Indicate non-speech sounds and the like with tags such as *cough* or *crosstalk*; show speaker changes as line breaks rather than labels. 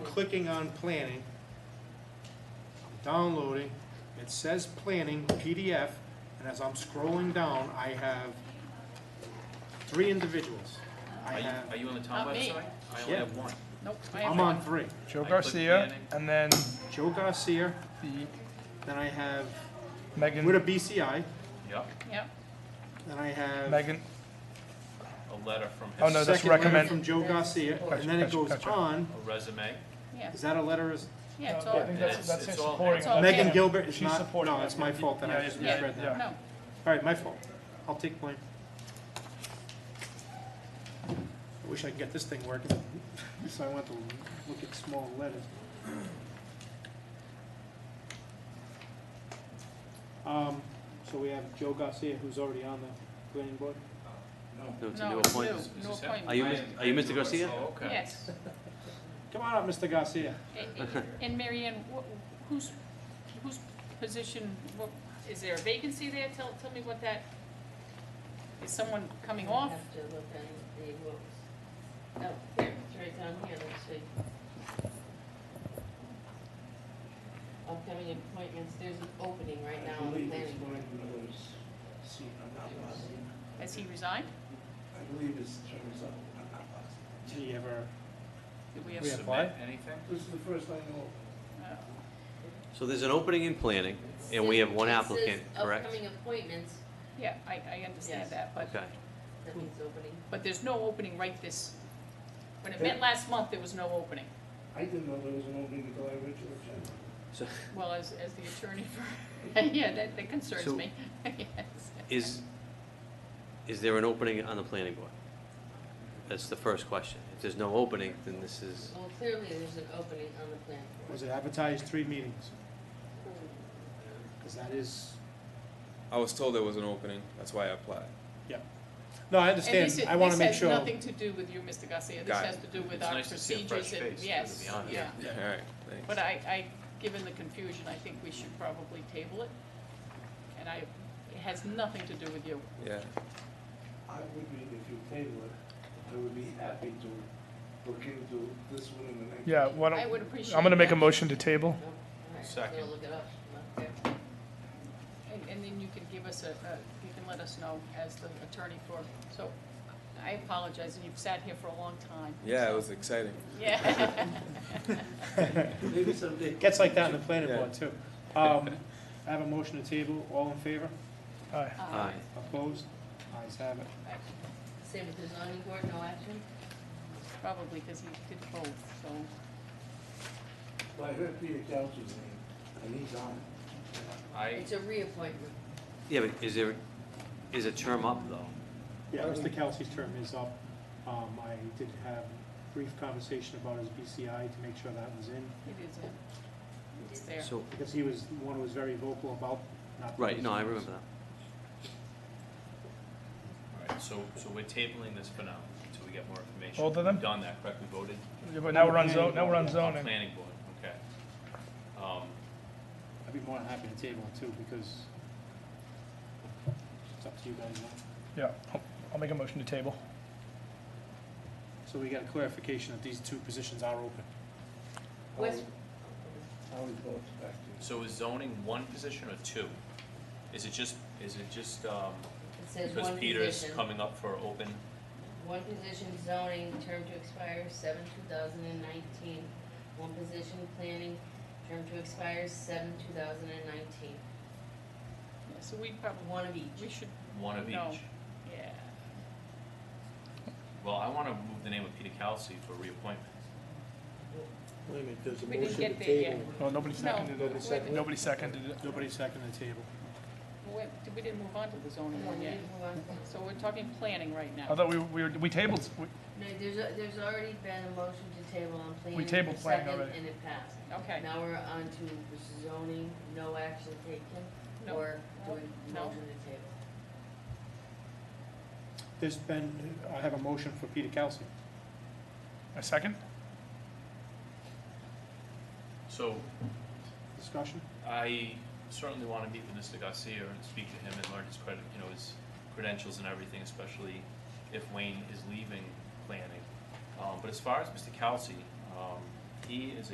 clicking on planning, downloading, it says planning PDF, and as I'm scrolling down, I have three individuals. I
Are you,
have,
are you on the town
Uh-huh. Not me.
website? I only
Yeah.
have one.
Nope, I have
I'm
one.
on three.
Joe
I clicked
Garcia,
Manning.
and then
Joe Garcia,
the
then I have, with a
Megan,
BCI,
Yep,
Yep,
then I have
Megan,
a letter from his.
Oh, no, that's
second letter
recommend-
from Joe Garcia, and then it
Gotcha,
goes
gotcha, gotcha.
on.
A resume.
yeah,
Is that a letter? Is-
yeah, it's
Yeah, I
all,
think
Yeah,
that's,
it's-
that's
it's
his
all
supporting.
hands on.
that.
Okay.
Megan Gilbert is
She's
not,
supporting
no,
that.
it's my fault that I
Yeah,
just
yeah,
misread that.
yeah.
no,
All right, my fault. I'll take blame. I wish I could get this thing working, so I want to look at small letters. Um, so we have Joe Garcia, who's already on the planning board.
No, it's a
no,
new
it's new,
appointment.
Is
new
this him?
Are
appointment.
you, Mis- are you Mr. Garcia?
Oh, okay.
Yes,
Come on up, Mr. Garcia.
A- a- and Mary Ann, wh- whose, whose position, what, is there a vacancy there? Tell, tell me what that, is someone coming
I
off?
have to look on the rules. Oh, here, it's right down here, let's see. Upcoming appointments, there's an opening right now on the planning board.
Has he resigned?
I believe his term is up. I'm not positive.
Did he ever,
Did we have,
We have-
Submit anything?
This is the first I know. of.
uh,
So there's an opening in planning, and we have one
It says
applicant, correct?
Upcoming appointments,
yeah, I, I understand
Yes.
that, but,
Okay,
that means opening.
but there's no opening right this, when it met last month, there was no opening.
I didn't know there was an opening until I read your agenda.
so
Well, as, as the attorney for, *laughs* yeah, that, that concerns
So-
me, *laughs* yes.
is, is there an opening on the planning board? That's the first question. If there's no opening, then this is,
Well, clearly, there's an opening on the planning
was
board.
it advertised three meetings?
Hmm.
Because that is,
I was told there was an opening. That's why I applied.
no, I
And this
understand.
is-
I want to make sure.
This has nothing to do with you, Mr. Garcia, this
Got it.
has to do with
It's
our
nice to see a fresh
procedures and,
face, to
yes,
be honest.
yeah.
All right. Thanks.
But I, I, given the confusion, I think we should probably table it. And I, it has nothing to do with you.
yeah.
I would be, if you table it, I would be happy to look into this one and the next.
Yeah, why
I
don't,
would appreciate that.
I'm gonna make a motion to table.
Nope, Oh, all right,
Second.
We'll look it up. Okay.
And, and then you can give us a, a, you can let us know as the attorney for, so, I apologize, and you've sat here for a long time.
Yeah, it was exciting.
*laughs*
*laughs*
Yeah.
Maybe someday.
Gets like that in the planning
Yeah.
board, too. Um, I have a motion to table. All in favor?
Aye.
Uh,
aye.
Opposed? Ayes have it.
I-
Same with the zoning board, no action?
Probably because he did both, so,
Well, I heard Peter Couch's name, and he's on.
I,
It's a reappointment.
yeah, but is there, is a term up, though?
Yeah, Mr. Kelsey's term is up. Um, I did have a brief conversation about his BCI to make sure that was in,
it is, a- it's there.
So,
because he was, one who was very vocal about not.
right, no, I remember that.
all right, so, so we're tabling this for now until we get more information.
Both of them?
We've Done that, correct? We voted? Uh,
Yeah, But now we're on zone, now we're on zoning.
Planning board, okay. Um,
I'd be more than happy to table it too, because it's up to you guys now.
Yeah, I'll- I'll make a motion to table.
So we got a clarification that these two positions are open.
West,
I would go back to.
so is zoning one position or two? Is it just, is it just, um,
it says
because
one
Peter's
position.
coming up for open?
One position zoning, term to expire seven two thousand and nineteen. One position planning, term to expire seven two thousand and nineteen.
Yeah, So we probably,
One of
we
each.
should,
One of each?
No. yeah,
Well, I wanna move the name of Peter Kelsey for reappointment.
Wait a minute, there's a
We didn't motion to get there yet. table.
No, nobody
No,
seconded
Nobody seconded.
it. Nobody seconded it.
Nobody seconded the table.
Wait, did- we didn't move on to the zoning one yet, so we're talking planning right
I
now.
thought we, we, were- we tabled, we-
No, there's, a- there's already been a motion to table on planning.
We tabled
for
planning
second,
already.
And it passed.
Okay,
Now we're on to zoning, no action taken,
No.
or do we
No.
motion to table?
There's been, I have a motion for Peter Kelsey.
a second?
So
Discussion?
I certainly want to meet with Mr. Garcia and speak to him and learn his credit, you know, his credentials and everything, especially if Wayne is leaving planning. Um, but as far as Mr. Kelsey, um, He is a